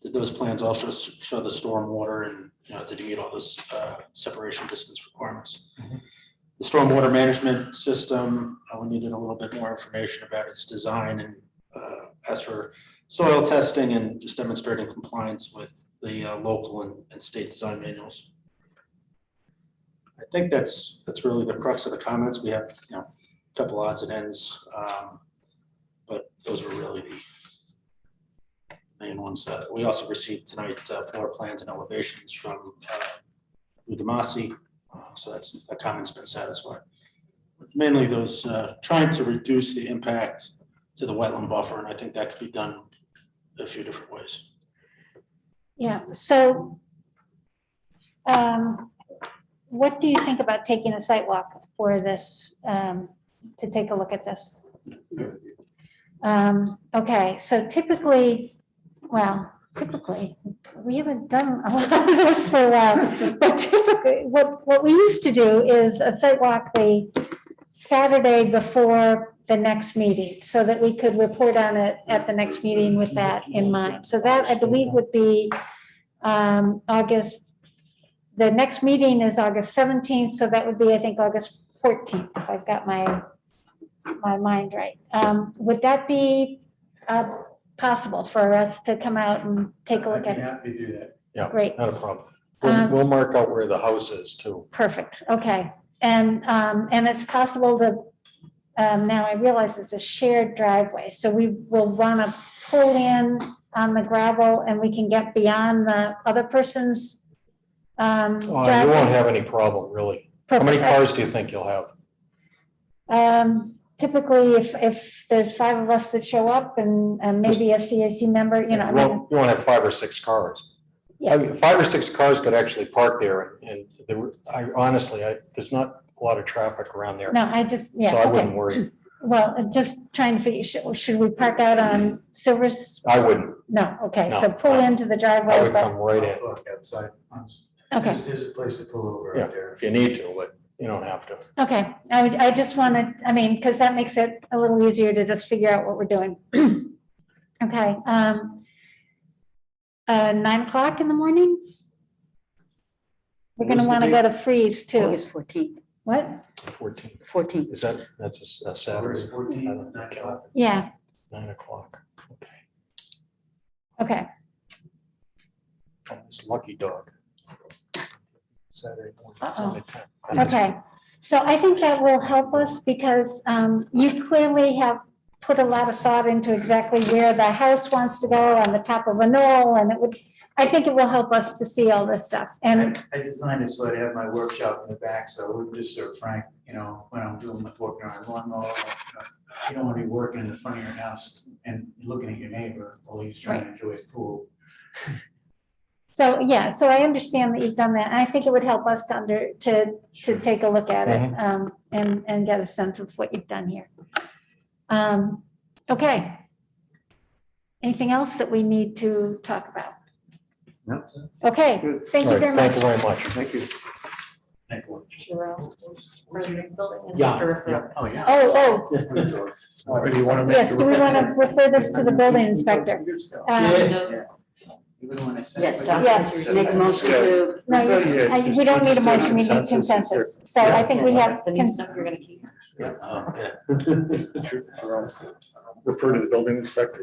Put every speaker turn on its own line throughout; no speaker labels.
Did those plans also s- show the stormwater and, you know, did you meet all those uh, separation distance requirements?
Mhm.
The stormwater management system, uh, we needed a little bit more information about its design and uh, as for soil testing and just demonstrating compliance with the uh, local and- and state design manuals. I think that's, that's really the crux of the comments. We have, you know, a couple odds and ends. um, But those were really the main ones. Uh, We also received tonight uh, floor plans and elevations from uh, Udemasi, uh, so that's, a comment's been satisfied. Mainly those, uh, trying to reduce the impact to the wetland buffer, and I think that could be done a few different ways.
Yeah, so um, what do you think about taking a site walk for this, um, to take a look at this? Um, Okay, so typically, well, typically, we haven't done a lot of this for a while. But typically, what, what we used to do is a site walk the Saturday before the next meeting, so that we could report on it at the next meeting with that in mind. So that, I believe, would be um, August, the next meeting is August 17th, so that would be, I think, August 14th, if I've got my, my mind right. Um, Would that be uh, possible for us to come out and take a look
I'd be
at?
happy to do that.
Great,
Not a problem. We'll,
Um,
we'll mark out where the house is too.
perfect, okay. And, um, and it's possible to, um, now I realize it's a shared driveway, so we will wanna pull in on the gravel and we can get beyond the other person's, um.
Oh, You won't have any problem, really. How many cars do you think you'll have?
Um, typically, if, if there's five of us that show up and, and maybe a CAC member, you know, I mean,
won't, you won't have five or six cars. I mean, Five or six cars could actually park there and there were, I honestly, I, there's not a lot of traffic around there.
no, I just,
So I
yeah, okay.
wouldn't worry.
Well, I'm just trying to figure, should, should we park out on Silver's
I wouldn't.
No, okay,
No,
so pull
no.
into the
I
driveway,
would
but,
come right in
I'll Park outside. once.
okay,
There's- There's a place to pull over
Yeah.
out there.
if you need to, but you don't have to.
okay. I would, I just wanted, I mean, because that makes it a little easier to just figure out what we're doing. Okay, um, uh, nine o'clock in the morning? We're gonna
What's the
want to
date?
go to freeze too.
August fourteenth,
What?
Fourteen,
fourteenth.
is that, that's a s- a Saturday,
August 14th,
I don't
nine
care.
o'clock.
Yeah,
nine o'clock. Okay.
okay,
Oh, It's lucky dog. Saturday morning.
Uh-oh.
Sunday time.
okay. So I think that will help us because, um, you clearly have put a lot of thought into exactly where the house wants to go on the top of a knoll and it would, I think it will help us to see all this stuff and
I I designed it so I'd have my workshop in the back, so it wouldn't disturb Frank, you know, when I'm doing my work on lawnmower. you know. You don't want to be working in the front of your house and looking at your neighbor while he's trying to enjoy his pool.
So, yeah, so I understand that you've done that. and I think it would help us to under, to, to take a look at
Mm-hmm.
it um, and, and get a sense of what you've done here. Um, Okay. Anything else that we need to talk about?
No.
Okay,
Good.
thank
All
you
right,
very
thank you
much.
very much.
Thank you. Thank you. Yeah, Oh, yeah.
Oh,
Or do you want to
oh,
make?
yes, do we want to refer this to the building inspector? Um,
Even when I said-
Yes,
Yes.
Doctor, make a motion to.
No, you- I- we don't need a motion, we need consensus. So I think we have,
The new
cons-
stuff you're gonna keep.
Yeah, oh, yeah.
Refer to the building inspector?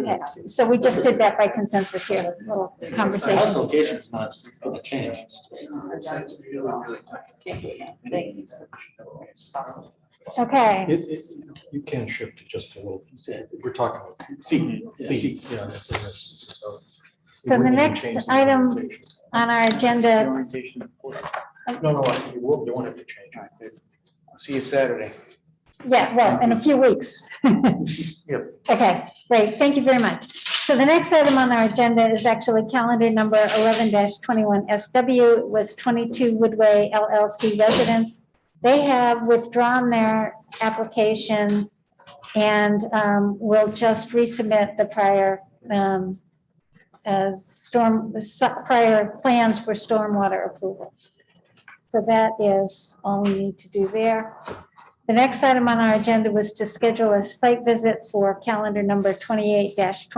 okay, so we just did that by consensus here, little
The house
conversation.
location is not going to change.
Thanks.
Okay.
It, it, you can shift it just a little. We're talking feet, feet, yeah, that's it. that's- so we
So the
wouldn't even
next
change the
item
orientation.
on our agenda,
No, no, I- you will, you won't have to change it.
See you Saturday.
yeah, well, in a few weeks.
Yep.
Okay, great, thank you very much. So the next item on our agenda is actually calendar number eleven twenty-one SW with twenty-two Woodway LLC residents. They have withdrawn their application and um, will just resubmit the prior um, uh, storm, prior plans for stormwater approval. So that is all we need to do there. The next item on our agenda was to schedule a site visit for calendar number twenty-eight twenty